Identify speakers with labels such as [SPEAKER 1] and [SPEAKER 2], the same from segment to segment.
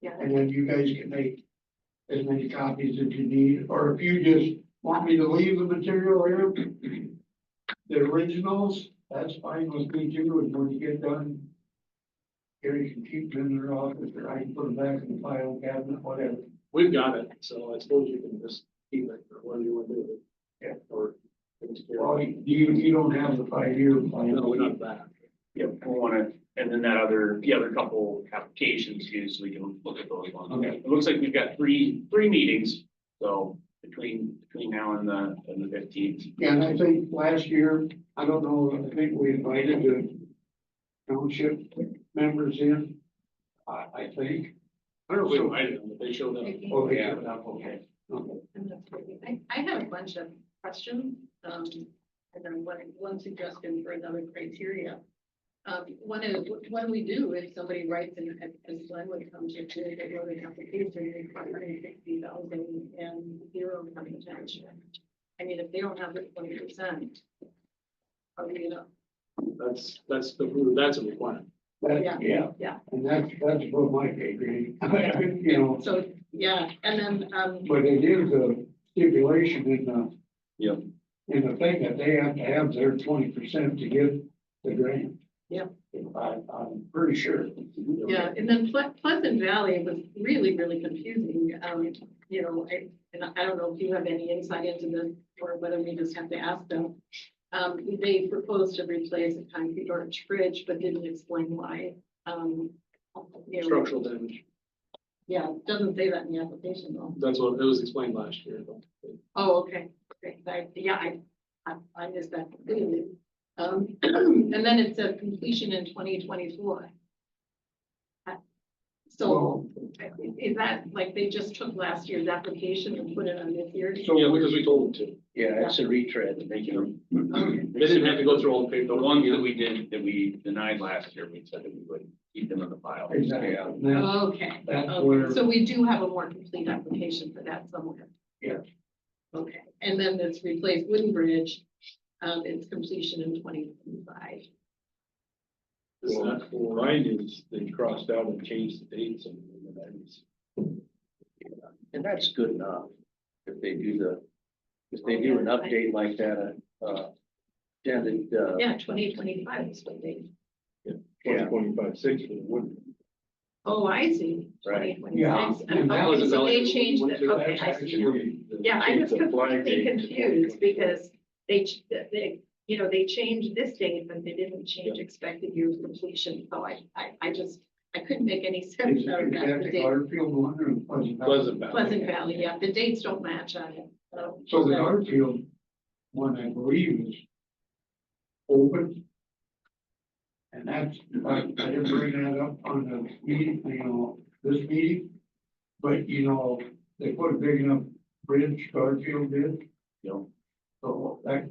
[SPEAKER 1] Yeah.
[SPEAKER 2] And then you guys can make as many copies as you need, or if you just want me to leave the material here, the originals, that's fine with me too, and when you get done, Gary can keep them in their office, or I can put them back in the file cabinet, whatever.
[SPEAKER 3] We've got it, so I suppose you can just keep it or whatever you want to do with it.
[SPEAKER 2] Yeah.
[SPEAKER 3] Or. it's-
[SPEAKER 2] Well, you, you don't have the five-year plan.
[SPEAKER 3] No, we're not that.
[SPEAKER 4] Yep, we wanna, and then that other, the other couple applications too, so we can look at those ones.
[SPEAKER 2] Okay.
[SPEAKER 4] It looks like we've got three, three meetings, so between, between now and the, and the fifteenth.
[SPEAKER 2] Yeah, And I think last year, I don't know, I think we invited the township members in, I, I think.
[SPEAKER 3] I don't know if we invited them, but they showed up.
[SPEAKER 2] Oh, yeah.
[SPEAKER 3] Okay.
[SPEAKER 2] Okay.
[SPEAKER 1] I, I have a bunch of questions, um, and then one, one suggestion for another criteria. Um, one is, what- what do we do if somebody writes and, and Glenwood comes to say they wrote an application requiring sixty thousand and zero coming township? I mean, if they don't have the twenty percent, are we gonna,
[SPEAKER 3] That's, that's the, that's a requirement.
[SPEAKER 2] That, yeah.
[SPEAKER 1] Yeah.
[SPEAKER 2] And that's, that's what my pay grade, you know,
[SPEAKER 1] so, yeah, and then, um,
[SPEAKER 2] but it is a stipulation in the.
[SPEAKER 4] Yep.
[SPEAKER 2] In the thing that they have to have their twenty percent to get the grant.
[SPEAKER 1] Yep.
[SPEAKER 2] I, I'm pretty sure.
[SPEAKER 1] Yeah, and then Ple- Pleasant Valley was really, really confusing, um, you know, I, and I don't know if you have any insight into this, or whether we just have to ask them. Um, they proposed to replace a concrete arch bridge, but didn't explain why, um. you know,
[SPEAKER 3] Structural damage.
[SPEAKER 1] Yeah, it doesn't say that in the application though.
[SPEAKER 3] That's what, it was explained last year.
[SPEAKER 1] Oh, okay, great, I, yeah, I, I, I missed that completely. Um, and then it said completion in twenty twenty-four. Uh, So.
[SPEAKER 2] So,
[SPEAKER 1] Is that, like, they just took last year's application and put it on this year?
[SPEAKER 3] Yeah, because we told them to.
[SPEAKER 5] Yeah, it's a retread, they can,
[SPEAKER 3] They didn't have to go through all the paper.
[SPEAKER 4] The ones that we did, that we denied last year, we said that we would keep them in the file.
[SPEAKER 2] exactly,
[SPEAKER 5] Yeah.
[SPEAKER 2] That's-
[SPEAKER 1] Okay,
[SPEAKER 2] that's where-
[SPEAKER 1] okay, so we do have a more complete application for that somewhere.
[SPEAKER 2] Yeah.
[SPEAKER 1] Okay, and then this replace wooden bridge, um, its completion in twenty twenty-five.
[SPEAKER 3] Is that for-
[SPEAKER 6] is they crossed out and changed the dates and that is.
[SPEAKER 5] and that's good enough. If they do the, if they do an update like that, uh, yeah, the, uh,
[SPEAKER 1] Yeah, twenty twenty-five is what they,
[SPEAKER 5] Yeah.
[SPEAKER 6] Twenty-five, six for the wood.
[SPEAKER 1] oh, I see, twenty
[SPEAKER 5] Right.
[SPEAKER 2] Yeah,
[SPEAKER 1] twenty-six. Oh,
[SPEAKER 2] and that
[SPEAKER 3] was a
[SPEAKER 1] So
[SPEAKER 3] valid-
[SPEAKER 1] they changed
[SPEAKER 3] went
[SPEAKER 1] it,
[SPEAKER 3] through
[SPEAKER 1] okay,
[SPEAKER 2] that's
[SPEAKER 1] I see.
[SPEAKER 2] actually-
[SPEAKER 1] Yeah, I
[SPEAKER 6] Change
[SPEAKER 1] was
[SPEAKER 6] the flag date
[SPEAKER 1] completely
[SPEAKER 6] to
[SPEAKER 1] confused because they, ch- they, you know, they changed this date, but they didn't change expected year of completion. So I, I, I just, I couldn't make any sense
[SPEAKER 2] Is
[SPEAKER 1] out of that. The
[SPEAKER 2] that
[SPEAKER 1] date-
[SPEAKER 2] Garfield one or Pleasant Valley?
[SPEAKER 6] Pleasant Valley.
[SPEAKER 1] Pleasant Valley, yeah, the dates don't match on it. So
[SPEAKER 2] So the Garfield one, I believe, is open. And that's, I, I didn't bring that up on the meeting, you know, this meeting. But, you know, they put a big enough bridge, Garfield did,
[SPEAKER 4] Yep.
[SPEAKER 2] so that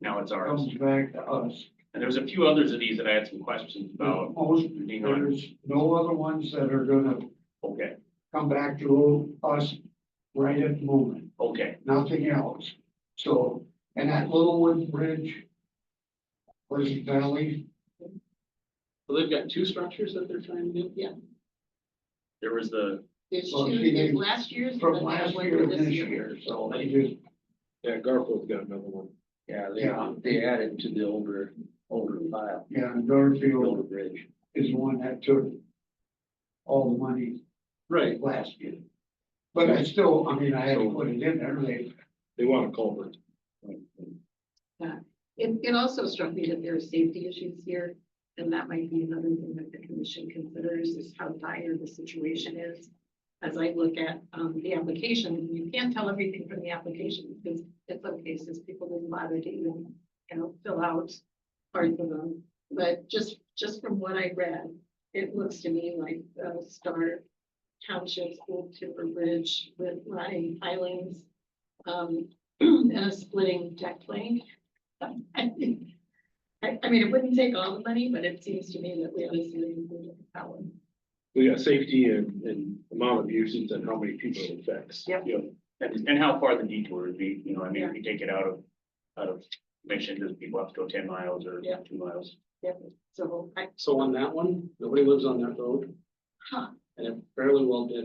[SPEAKER 4] Now it's ours.
[SPEAKER 1] Um,
[SPEAKER 2] comes back to us.
[SPEAKER 4] And there's a few others of these that I had some questions about.
[SPEAKER 2] Most,
[SPEAKER 4] Being on,
[SPEAKER 2] there's no other ones that are gonna
[SPEAKER 4] okay,
[SPEAKER 2] come back to us right at the moment.
[SPEAKER 4] okay,
[SPEAKER 2] nothing else. So, and that little wooden bridge, Pleasant Valley,
[SPEAKER 3] So they've got two structures that they're trying to do?
[SPEAKER 4] there was the,
[SPEAKER 1] there's
[SPEAKER 2] Well,
[SPEAKER 1] two,
[SPEAKER 2] she
[SPEAKER 1] there's
[SPEAKER 2] did-
[SPEAKER 1] last year's. and
[SPEAKER 2] from
[SPEAKER 1] then they have
[SPEAKER 2] last
[SPEAKER 1] one
[SPEAKER 2] year to
[SPEAKER 1] for
[SPEAKER 2] this year, so they just,
[SPEAKER 6] Yeah, Garfield's got another one.
[SPEAKER 5] yeah,
[SPEAKER 2] Yeah.
[SPEAKER 5] they, they added to the older, older file,
[SPEAKER 2] yeah, and
[SPEAKER 5] the older
[SPEAKER 2] Garfield
[SPEAKER 5] bridge.
[SPEAKER 2] is the one that took all the money
[SPEAKER 3] Right.
[SPEAKER 2] last year. But I still, I mean, I had to put it in there, they,
[SPEAKER 6] They want a culvert.
[SPEAKER 1] It, it also struck me that there are safety issues here. And that might be another thing that the commission considers is how dire the situation is. As I look at, um, the application, you can't tell everything from the application because in some cases people didn't bother to even, you know, fill out parts of them. But just, just from what I read, it looks to me like, uh, Star Township's old timber bridge with running pilings. Um, and a splitting deck plank. I, I mean, it wouldn't take all the money, but it seems to me that we ought to see it included in that one.
[SPEAKER 6] We got safety and, and amount of uses and how many people it affects.
[SPEAKER 1] Yep.
[SPEAKER 4] uh, and and how far the detour would be, you know, I mean, if you take it out of, out of mission, does people have to go ten miles or
[SPEAKER 1] Yeah.
[SPEAKER 4] two miles?
[SPEAKER 1] So I,
[SPEAKER 3] So on that one, nobody lives on that road.
[SPEAKER 1] Huh.
[SPEAKER 3] and it fairly well did